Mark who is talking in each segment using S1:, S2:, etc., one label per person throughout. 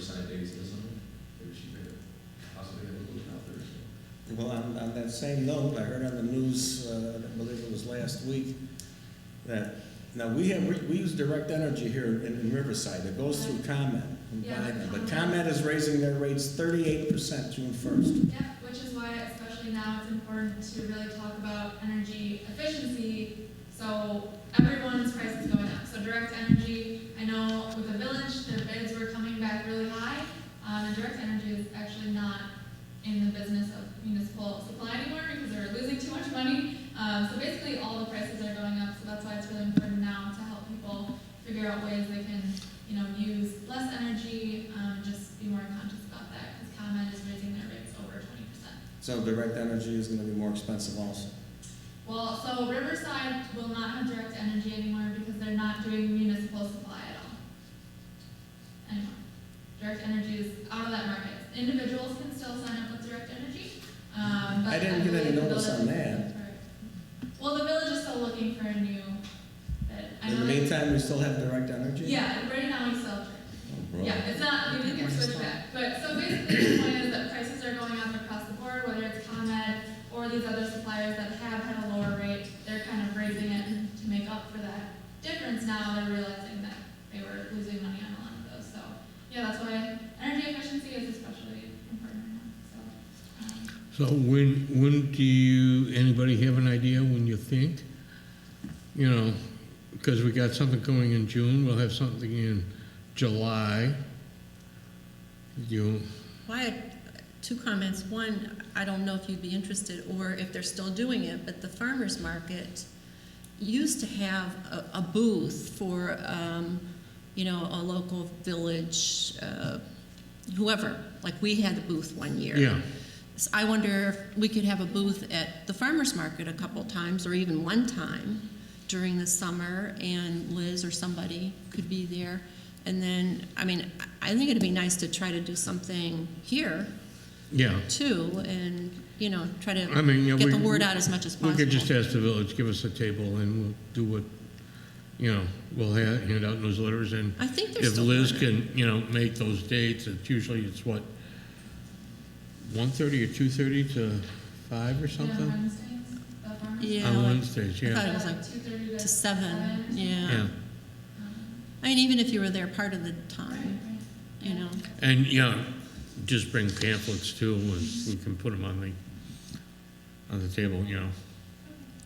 S1: Saturdays is on, or she there. Possibly have a little town Thursday.
S2: Well, on, on that same note, I heard on the news, uh, I believe it was last week, that, now, we have, we, we use direct energy here in in Riverside, it goes through ComEd and
S3: Yeah.
S2: Biden, but ComEd is raising their rates thirty-eight percent June first.
S3: Yep, which is why, especially now, it's important to really talk about energy efficiency, so everyone's price is going up. So direct energy, I know with the village, their bids were coming back really high, um, and direct energy is actually not in the business of municipal supply anymore because they're losing too much money. Um, so basically, all the prices are going up, so that's why it's really important now to help people figure out ways they can, you know, use less energy, um, and just be more conscious about that, because ComEd is raising their rates over twenty percent.
S2: So direct energy is gonna be more expensive also.
S3: Well, so Riverside will not have direct energy anymore because they're not doing municipal supply at all. Anymore. Direct energy is out of that market. Individuals can still sign up with direct energy, um, but.
S2: I didn't get any
S3: believe the
S2: notice on
S3: village- Well, the village is still looking for a new, bid. I
S2: In the
S3: know they-
S2: meantime, we still have direct energy? Oh,
S3: Yeah, right now we sell direct.
S2: Bro.
S3: Yeah, it's not, we didn't get switched back, but, so basically, the point is that prices are going up across the board, whether it's ComEd or these other suppliers that have had a lower rate, they're kind of raising it to make up for that difference now, they're realizing that they were losing money on a lot of those, so, yeah, that's why energy efficiency is especially important right now, so. um,
S4: So when, when do you, anybody have an idea when you think? You know, because we got something going in June, we'll have something in July. You,
S5: Well, I had two comments. One, I don't know if you'd be interested or if they're still doing it, but the farmer's market used to have a, a booth for, um, you know, a local village, uh, whoever. Like we had a booth one year.
S4: yeah,
S5: So I wonder if we could have a booth at the farmer's market a couple times or even one time during the summer and Liz or somebody could be there. And then, I mean, I I think it'd be nice to try to do something here
S4: yeah.
S5: too and, you know, try to
S4: I mean, yeah,
S5: get
S4: we-
S5: the word out as much as
S4: We
S5: possible.
S4: could just ask the village, give us a table and we'll do what, you know, we'll ha- hand out newsletters and
S5: I think there's
S4: if
S5: still.
S4: Liz
S5: doing it.
S4: can, you know, make those dates, it's usually it's what? 1:30 or 2:30 to 5 or
S3: you know,
S4: something?
S3: Wednesdays, the farmers?
S5: Yeah.
S4: On
S5: like-
S4: Wednesdays,
S5: I
S4: yeah.
S5: thought it was like
S3: Two-thirty
S5: to seven,
S3: or
S5: yeah.
S4: Yeah,
S3: something. Um,
S5: I mean, even if you were there part of the
S3: right,
S5: time,
S3: right.
S5: you know.
S4: and, you know, just bring pamphlets too, and we can put them on the, on the table, you know.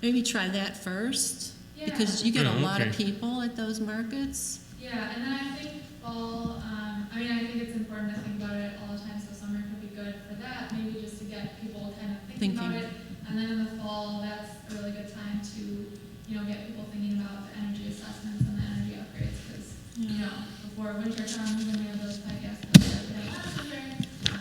S5: Maybe try that first.
S3: Yeah.
S5: Because you get a
S4: Yeah,
S5: lot of
S4: Oh, okay.
S5: people at those markets.
S3: Yeah, and then I think fall, um, I mean, I think it's important to think about it all the time, so summer could be good for that, maybe just to get people kind of thinking about
S5: Thinking.
S3: it. And then in the fall, that's a really good time to, you know, get people thinking about the energy assessments and the energy upgrades, because, you know, before winter comes and we have those podcasts, that's like, "Ah, winter," uh,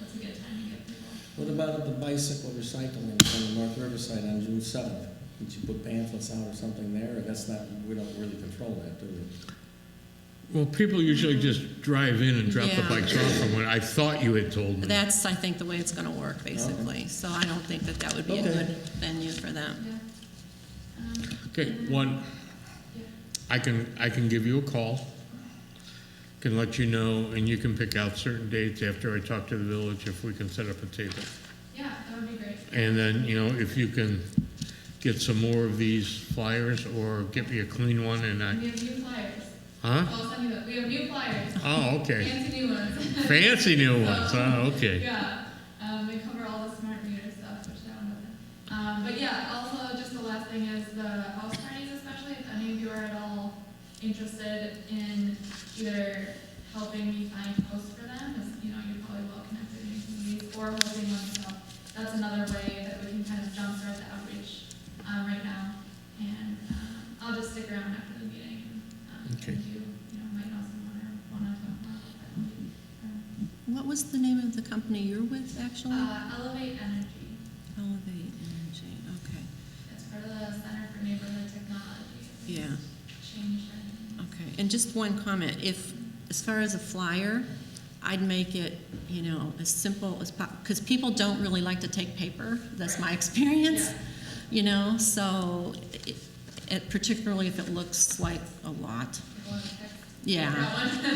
S3: that's a good time to get people.
S2: What about at the bicycle recycling from the North Riverside on June seventh? Did you put pamphlets out or something there, or that's not, we don't really control that, do we?
S4: Well, people usually just drive in and drop the
S5: Yeah.
S4: bikes off from what I thought you had told me.
S5: That's, I think, the way it's gonna work, basically. So I don't think that that would be a
S2: Okay.
S5: good venue for them.
S3: Yeah. Um,
S4: Okay,
S3: and-
S4: one,
S3: Yeah.
S4: I can, I can give you a call, can let you know, and you can pick out certain dates after I talk to the village if we can set up a table.
S3: Yeah, that would be great.
S4: And then, you know, if you can get some more of these flyers or get me a clean one and I,
S3: We have new flyers.
S4: huh?
S3: I'll send you that, we have new flyers,
S4: Oh, okay.
S3: fancy new ones.
S4: Fancy new ones, oh, okay.
S3: Yeah, um, they cover all the smart meter stuff, which that one doesn't. Um, but yeah, also, just the last thing is the house parties especially, if any of you are at all interested in either helping me find hosts for them, as, you know, you're probably well connected in your communities, or hosting one yourself. That's another way that we can kind of jumpstart the outreach, um, right now. And, um, I'll just stick around after the meeting, and, um, if
S4: Okay.
S3: you, you know, might know someone or wanna talk about it, that would be, um,
S5: What was the name of the company you're with, actually?
S3: uh, Elevate Energy,
S5: Elevate Energy, okay.
S3: it's part of the Center for Neighborhood Technology.
S5: Yeah,
S3: Changed it.
S5: okay. And just one comment, if, as far as a flyer, I'd make it, you know, as simple as possible, because people don't really like to take paper. That's my experience, you know, so it, it- particularly if it looks like a lot.
S3: People want to text.
S5: Yeah.
S3: That one.